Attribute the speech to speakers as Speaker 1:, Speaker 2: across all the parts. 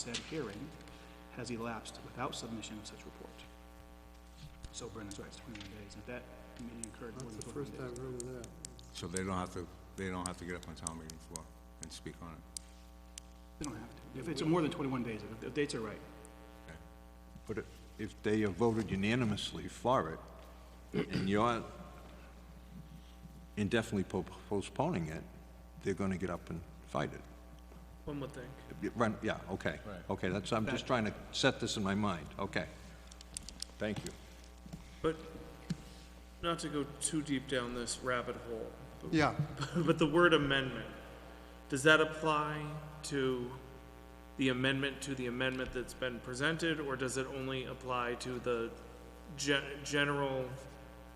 Speaker 1: said hearing has elapsed without submission of such report. So Brendan's right, it's twenty-one days, and if that meeting occurred more than
Speaker 2: That's the
Speaker 1: twenty-one days.
Speaker 2: first I've heard of that.
Speaker 3: So they don't have to, they don't have to get up on town meeting floor and speak on it?
Speaker 1: They don't have to. If it's more than twenty-one days, if the dates are right.
Speaker 4: But i- if they have voted unanimously for it, and you're indefinitely po- postponing it, they're gonna get up and fight it.
Speaker 5: One would think.
Speaker 4: Y- run- Yeah, okay. Okay, that's, I'm just trying to set this in my mind, okay. Thank you.
Speaker 5: But not to go too deep down this rabbit hole,
Speaker 2: Yeah,
Speaker 5: but the word amendment, does that apply to the amendment to the amendment that's been presented, or does it only apply to the gen- general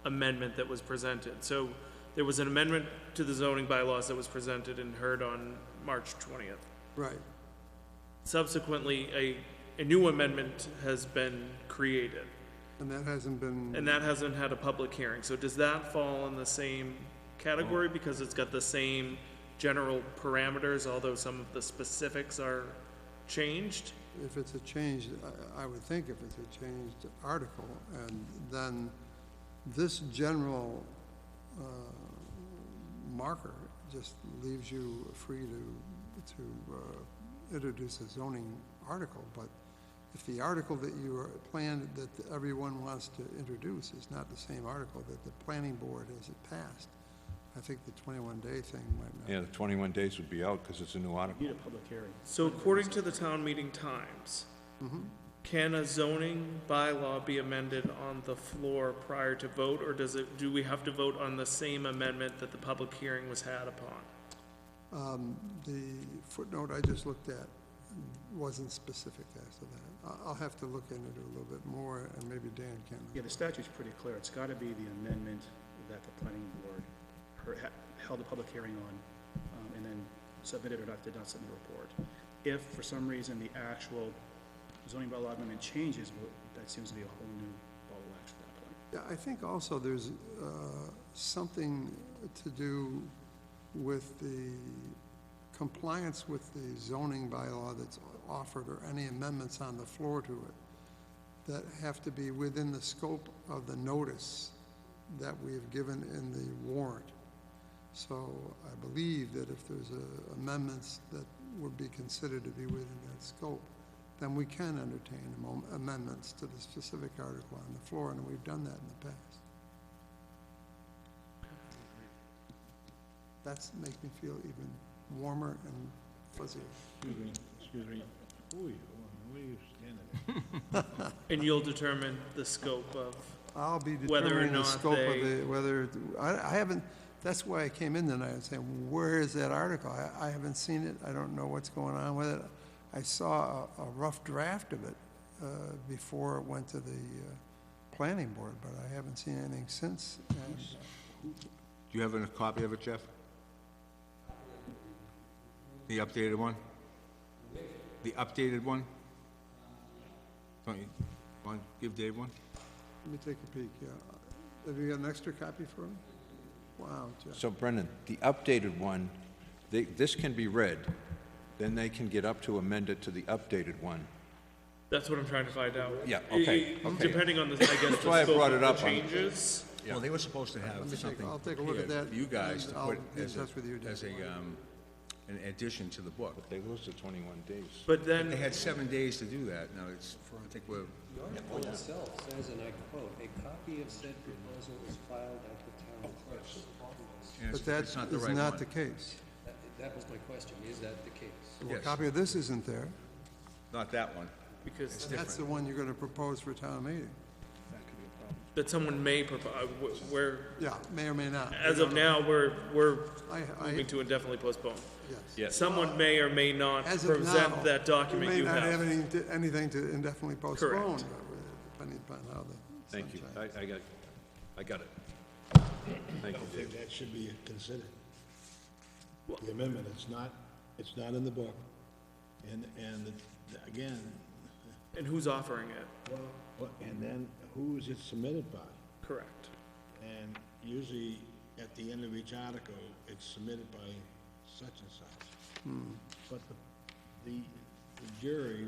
Speaker 5: amendment that was presented? So there was an amendment to the zoning bylaws that was presented and heard on March twentieth.
Speaker 2: right.
Speaker 5: Subsequently, a, a new amendment has been created.
Speaker 2: And that hasn't been,
Speaker 5: And that hasn't had a public hearing, so does that fall in the same category because it's got the same general parameters, although some of the specifics are changed?
Speaker 2: if it's a changed, I- I would think if it's a changed article, and then this general uh, marker just leaves you free to, to uh, introduce a zoning article, but if the article that you are planned, that everyone wants to introduce is not the same article that the planning board has passed, I think the twenty-one day thing might not.
Speaker 4: Yeah, the 21 days would be out, because it's a new article.
Speaker 1: Need a public hearing.
Speaker 5: So according to the town meeting times, can a zoning bylaw be amended on the floor prior to vote, or does it, do we have to vote on the same amendment that the public hearing was had upon?
Speaker 2: The footnote I just looked at wasn't specific as to that. I- I'll have to look into it a little bit more, and maybe Dan can.
Speaker 1: Yeah, the statute's pretty clear. It's gotta be the amendment that the planning board her- ha- held a public hearing on, um, and then submitted or not, did not submit a report. If for some reason the actual zoning bylaw amendment changes, well, that seems to be a whole new ball of wax at that point.
Speaker 2: Yeah, I think also there's uh, something to do with the compliance with the zoning bylaw that's offered, or any amendments on the floor to it, that have to be within the scope of the notice that we have given in the warrant. So I believe that if there's uh, amendments that would be considered to be within that scope, then we can entertain amo- amendments to the specific article on the floor, and we've done that in the past. That's make me feel even warmer and fuzzier.
Speaker 6: Excuse me. Who are you? and What are you standing there?
Speaker 5: And you'll determine the scope of,
Speaker 2: I'll be
Speaker 5: Whether or
Speaker 2: determining the
Speaker 5: not
Speaker 2: scope of
Speaker 5: they-
Speaker 2: the, whether, I, I haven't, that's why I came in tonight and saying, where is that article? I, I haven't seen it, I don't know what's going on with it. I saw a, a rough draft of it, uh, before it went to the, uh, planning board, but I haven't seen anything since. And uh,
Speaker 3: Do you have a copy of it, Jeff? The updated one? The updated one? Don't you, want, give Dave one?
Speaker 2: Let me take a peek, yeah. Have you got an extra copy for him? Wow, Jeff.
Speaker 4: So Brendan, the updated one, they, this can be read, then they can get up to amend it to the updated one.
Speaker 5: that's what I'm trying to find out.
Speaker 4: Yeah,
Speaker 5: I-
Speaker 4: okay,
Speaker 5: I-
Speaker 4: okay.
Speaker 5: Depending on the, I guess, the
Speaker 4: why I
Speaker 5: scope
Speaker 4: brought
Speaker 5: of
Speaker 4: it
Speaker 5: the
Speaker 4: up on-
Speaker 5: changes.
Speaker 3: Well, they were supposed to have
Speaker 2: Let me take,
Speaker 3: something
Speaker 2: I'll take a look at
Speaker 3: prepared
Speaker 2: that.
Speaker 3: for you guys to
Speaker 2: and I'll
Speaker 3: put
Speaker 2: be in
Speaker 3: as a,
Speaker 2: touch with you, Dan.
Speaker 3: as a, um, an addition to the book.
Speaker 4: They lose the 21 days.
Speaker 5: But
Speaker 3: They
Speaker 5: then,
Speaker 3: had seven days to do that, now it's, I think we're,
Speaker 7: The article itself says, and I quote, "A copy of said proposal is filed at the town clerk's office."
Speaker 3: and
Speaker 2: But
Speaker 3: it's
Speaker 2: that
Speaker 3: it's
Speaker 2: is
Speaker 3: not the right one.
Speaker 2: not the case.
Speaker 7: That- That was my question, is that the case?
Speaker 2: Well, A
Speaker 3: Yes.
Speaker 2: copy of this isn't there.
Speaker 3: Not that one.
Speaker 5: because
Speaker 2: That's the one you're gonna propose for town meeting.
Speaker 5: that someone may provide, we're,
Speaker 2: Yeah, may or may not.
Speaker 5: as of now, we're, we're
Speaker 2: I, I,
Speaker 5: moving to indefinitely postpone.
Speaker 2: yes.
Speaker 4: Yes.
Speaker 5: Someone may or may not
Speaker 2: As of now.
Speaker 5: present that document
Speaker 2: We
Speaker 5: you
Speaker 2: may not have
Speaker 5: have.
Speaker 2: anything to- anything to indefinitely postpone,
Speaker 5: Correct.
Speaker 2: depending upon how the.
Speaker 4: Thank you. I, I got, I got it. Thank you, Dave.
Speaker 6: That should be considered. The amendment, it's not, it's not in the book. And, and the- again,
Speaker 5: And who's offering it?
Speaker 6: what- and then who is it submitted by?
Speaker 5: Correct.
Speaker 6: And usually, at the end of each article, it's submitted by such and such. But the, the the jury